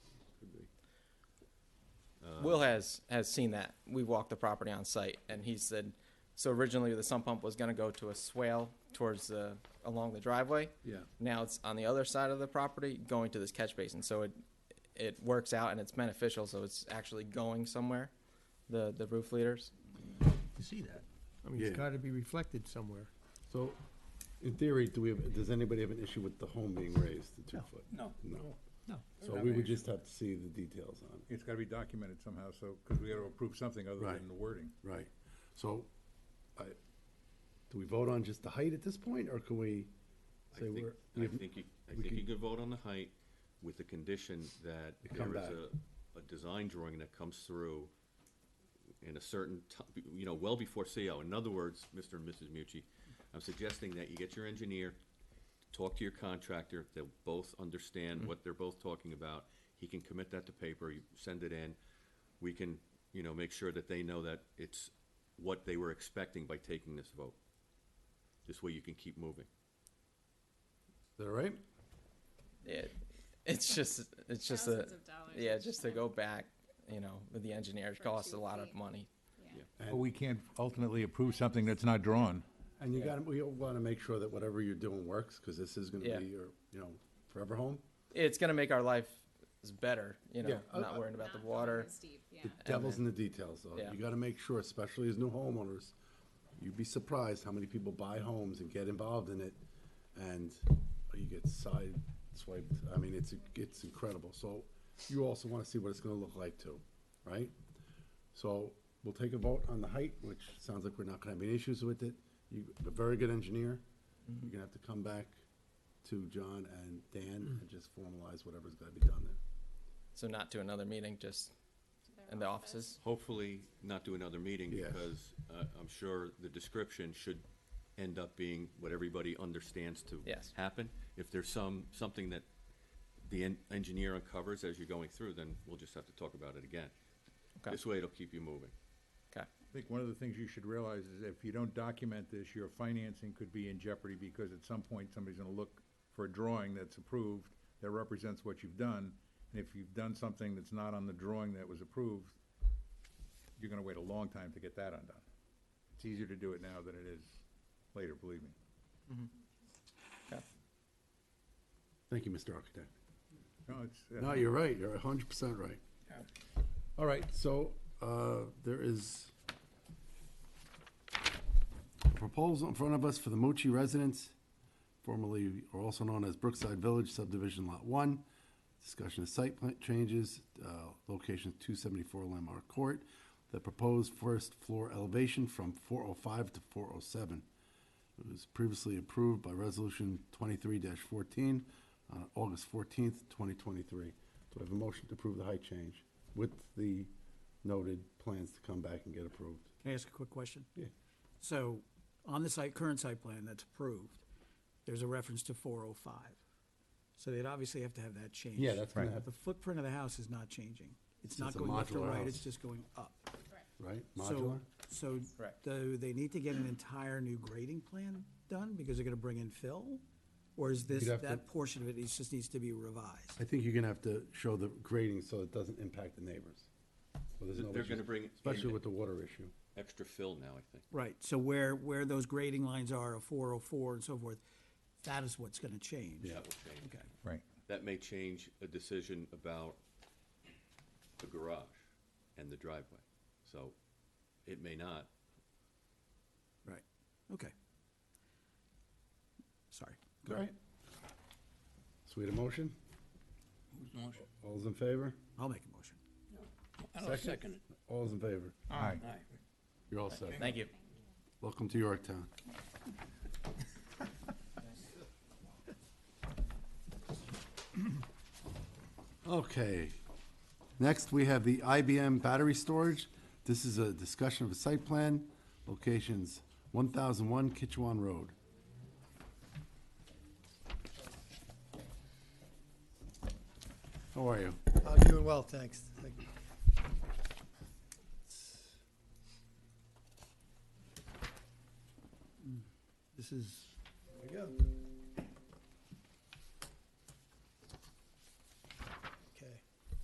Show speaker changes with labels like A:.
A: Will has has seen that. We walked the property on site, and he said, so originally the sump pump was going to go to a swale towards the along the driveway.
B: Yeah.
A: Now it's on the other side of the property, going to this catch basin. So it it works out and it's beneficial. So it's actually going somewhere. The the roof leaders.
C: to see that. I mean, it's
B: Yeah.
C: gotta be reflected somewhere.
B: So, in theory, do we have, does anybody have an issue with the home being raised to two
C: No.
B: foot?
D: No.
B: No.
C: No.
B: So we would just have to see the details on
D: It's gotta be documented somehow, so, because we gotta approve something other
B: Right.
D: than the wording.
B: it. Right. So, I, do we vote on just the height at this point, or can we
E: I
B: say
E: think,
B: we're?
E: I
B: we have-
E: think you, I
B: we
E: think you
B: could-
E: could vote on the height with the condition that
B: You come
E: there is
B: back.
E: a, a design drawing that comes through in a certain ti- you know, well before CO. In other words, Mr. and Mrs. Mucci, I'm suggesting that you get your engineer, talk to your contractor, they'll both
B: Mm-hmm.
E: understand what they're both talking about. He can commit that to paper, you send it in. We can, you know, make sure that they know that it's what they were expecting by taking this vote. This way you can keep moving.
B: Is that all right?
A: It, it's just it's just a
F: Thousands of dollars
A: yeah
F: each
A: just to
F: time.
A: go back. You know, with the engineers
F: For
A: costs a
F: two
A: lot of
F: feet.
A: money.
F: Yeah.
D: But we can't ultimately approve something that's not drawn.
B: And you gotta, we wanna make sure that whatever you're doing works, cause this is gonna
A: Yeah.
B: be your, you know, forever home.
A: It's going to make our life better. You know,
B: Yeah, I- I-
A: not worrying about
F: Not
A: the
F: going
A: water.
F: as deep, yeah.
B: The devil's in the details, though.
A: Yeah.
B: You gotta make sure, especially as new homeowners, you'd be surprised how many people buy homes and get involved in it, and you get side swiped. I mean, it's, it's incredible. So you also wanna see what it's gonna look like too, right? So we'll take a vote on the height, which sounds like we're not gonna have any issues with it. You, a very good engineer. You're gonna have to come back to John and Dan and just formalize whatever's gotta be done there.
A: So not to another meeting, just
F: Their
A: in the offices.
E: hopefully not do another meeting
B: Yeah.
E: because uh, I'm sure the description should end up being what everybody understands to
A: Yes.
E: happen. If there's some, something that the en- engineer uncovers as you're going through, then we'll just have to talk about it again.
A: Okay.
E: This way it'll keep you moving.
A: Okay.
D: I think one of the things you should realize is if you don't document this, your financing could be in jeopardy because at some point, somebody's gonna look for a drawing that's approved that represents what you've done. And if you've done something that's not on the drawing that was approved, you're gonna wait a long time to get that undone. It's easier to do it now than it is later, believe me.
A: Okay.
B: Thank you, Mr. Architect.
D: No, it's, uh,
B: No, you're right, you're hundred percent right. All right, so, uh, there is a proposal in front of us for the Mochi residents, formerly, or also known as Brookside Village subdivision lot one. Discussion of site plan changes, uh, location two seventy-four Landmark Court. The proposed first floor elevation from four oh five to four oh seven. It was previously approved by Resolution 23-14 on August 14th, 2023. Do I have a motion to approve the height change with the noted plans to come back and get approved?
G: Can I ask a quick question?
B: Yeah.
G: So, on the site, current site plan that's approved, there's a reference to four oh five. So they'd obviously have to have that changed.
B: Yeah, that's gonna Right.
G: But The footprint of the house is not changing. It's not
B: just a
G: going left or
B: modular
G: right,
B: house.
G: it's just going up.
B: Right,
G: So,
B: modular?
G: so
A: Correct.
G: do they need to get an entire new grading plan done because they're gonna bring in fill? Or is this,
B: You'd have to-
G: that portion of it is- just needs to be revised?
B: I think you're gonna have to show the grading so it doesn't impact the neighbors. So there's
E: They're-
B: no
E: they're
B: issues,
E: gonna bring in-
B: Especially with the water issue.
E: Extra fill now, I think.
G: Right, so where, where those grading lines are, of four oh four and so forth, that is what's gonna change.
E: That will change.
G: Okay.
D: right.
E: That may change a decision about the garage and the driveway. So it may not.
G: Right, okay. Sorry.
B: All right. So we had a motion? All those in favor?
G: I'll make a motion.
C: I'll second it.
B: All those in favor?
D: All right.
B: You're all set.
A: Thank you.
B: Welcome to Yorktown. Okay. Next, we have the IBM battery storage. This is a discussion of a site plan, locations 1001 Kitchewan Road. How are you?
C: I'm doing well, thanks. Thank you.
G: This is
B: There you go.